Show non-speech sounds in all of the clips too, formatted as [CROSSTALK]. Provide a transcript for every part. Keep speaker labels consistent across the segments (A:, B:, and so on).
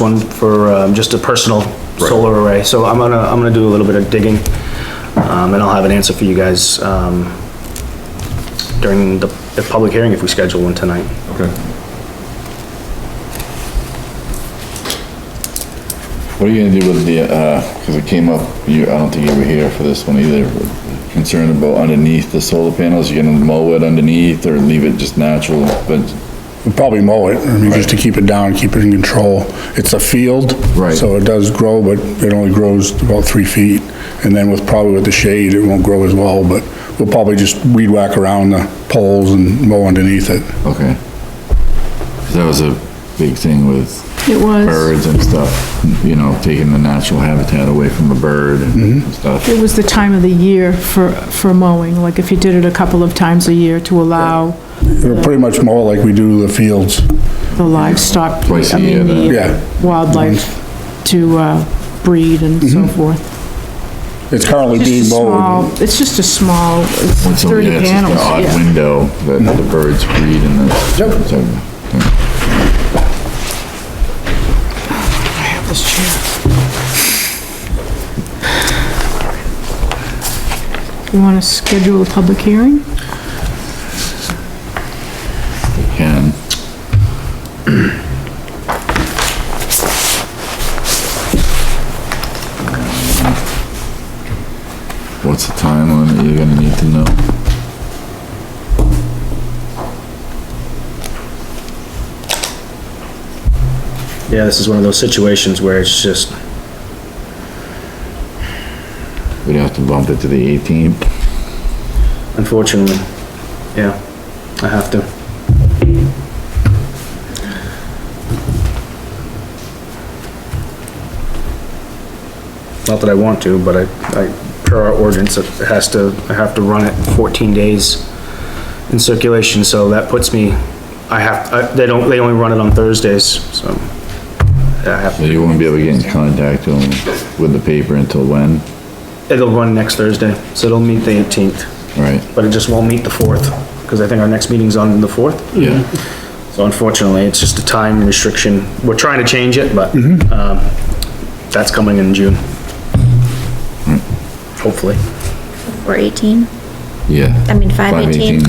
A: one for, um, just a personal solar array, so I'm gonna, I'm gonna do a little bit of digging, um, and I'll have an answer for you guys, um, during the, the public hearing if we schedule one tonight.
B: Okay.
C: What are you gonna do with the, uh, cause it came up, you, I don't think you were here for this one either, but concern about underneath the solar panels, you gonna mow it underneath or leave it just natural, but,
D: We'd Probably mow it, I mean, just to keep it down, keep it in control. It's a field.
C: Right.
D: So it does grow, but it only grows about three feet. And then with, probably with the shade, it won't grow as well, but we'll probably just weed whack around the poles and mow underneath it.
C: okay. 'Cause That was a big thing with
E: It was,
C: birds and stuff, you know, taking the natural habitat away from a bird and
E: Mm-hmm.
C: stuff.
E: it was the time of the year for, for mowing, like if you did it a couple of times a year to allow
D: We'll pretty much mow it like we do the fields.
E: the livestock.
C: Twice a
E: I mean,
C: year, then.
E: the
D: Yeah. Mm-hmm.
E: Wildlife to, uh, breed and so forth.
D: It's currently
E: Just a
D: Mm-hmm. being
E: small,
D: mowed.
E: it's just a small, it's
C: Once a
E: thirty
C: year, it's just an
E: panels,
C: odd
E: yeah.
C: window that the birds breed in the.
D: Yep.
C: so,
E: This chair. You wanna schedule a public hearing?
C: they Can, what's the time limit you're gonna need to know?
A: Yeah, this is one of those situations where it's just,
C: We'd have to bump it to the eighteenth.
A: unfortunately, yeah, I have to. Not that I want to, but I, I, per our ordinance, it has to, I have to run it fourteen days in circulation, so that puts me, I have, I, they don't, they only run it on Thursdays, so. I have,
C: So you won't be able to get in contact with them with the paper until when?
A: it'll run next Thursday, so it'll meet the eighteenth.
C: Right?
A: but it just won't meet the fourth, because I think our next meeting's on the fourth.
C: Yeah.
A: So unfortunately, it's just a time restriction. We're trying to change it, but, um, that's coming in June. Hopefully.
F: Four eighteen?
C: Yeah.
F: I mean, five eighteen?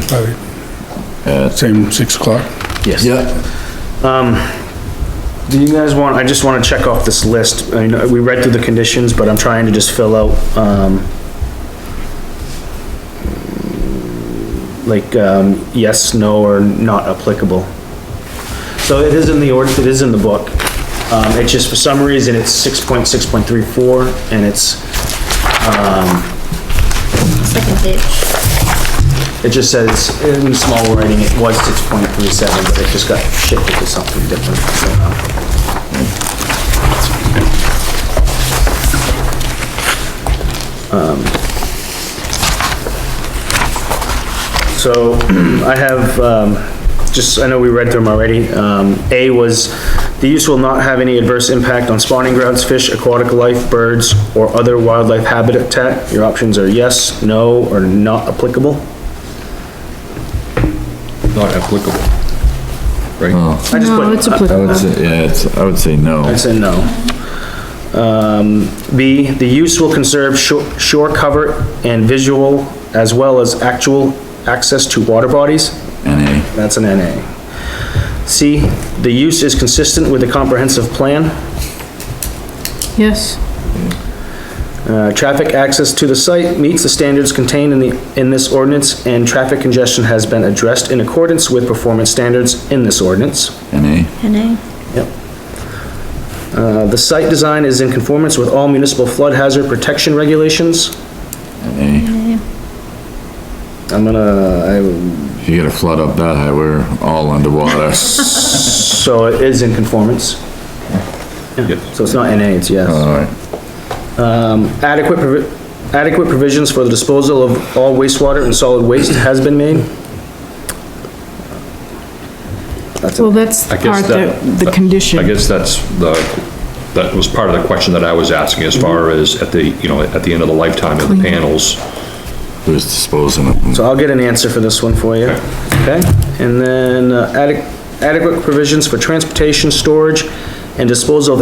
D: Same six o'clock.
A: Yes.
C: Yeah.
A: Do you guys want, I just wanna check off this list. I know, we read through the conditions, but I'm trying to just fill out, um, like, um, yes, no, or not applicable. So it is in the ord, it is in the book. Um, it's just for some reason, it's six point, six point three four, and it's,
F: Second page.
A: it just says, in small writing, it was six point three seven, but it just got shifted to something different. somehow. Um, So I have, um, just, I know we read through them already. Um, A was, the use will not have any adverse impact on spawning grounds, fish, aquatic life, birds, or other wildlife habitat. Your options are yes, no, or not applicable.
B: Not applicable. Right?
C: Oh,
A: I just
E: No,
A: put-
E: it's
B: uh,
C: I
E: applicable.
C: would say, yeah, it's, I would say no.
A: I said no. Um, B, the use will conserve shore, shore cover and visual as well as actual access to water bodies.
C: NA.
A: That's an NA. C, the use is consistent with the comprehensive plan.
E: Yes,
A: Uh, traffic access to the site meets the standards contained in the, in this ordinance and traffic congestion has been addressed in accordance with performance standards in this ordinance.
C: NA.
F: NA?
A: Uh, the site design is in conformance with all municipal flood hazard protection regulations.
C: NA.
A: I'm [LAUGHS] gonna,
C: If you get a flood up that high, we're all [LAUGHS] underwater.
A: I, so it is in conformance. Yeah, Uh. So it's not NA, it's yes.
C: All right.
A: Adequate, provi- adequate provisions for the disposal of all wastewater and solid waste has been made. That's
E: well,
A: it.
E: that's the
B: I guess
E: part that,
B: that-
E: the condition.
B: I guess that's the, that was part of the question that I was asking as far as at the, you know, at the end of the lifetime of the panels.
C: Who's disposing of them?
A: So I'll get an answer for this one for you, okay? And then uh, adequ- adequate provisions for transportation, storage, and disposal of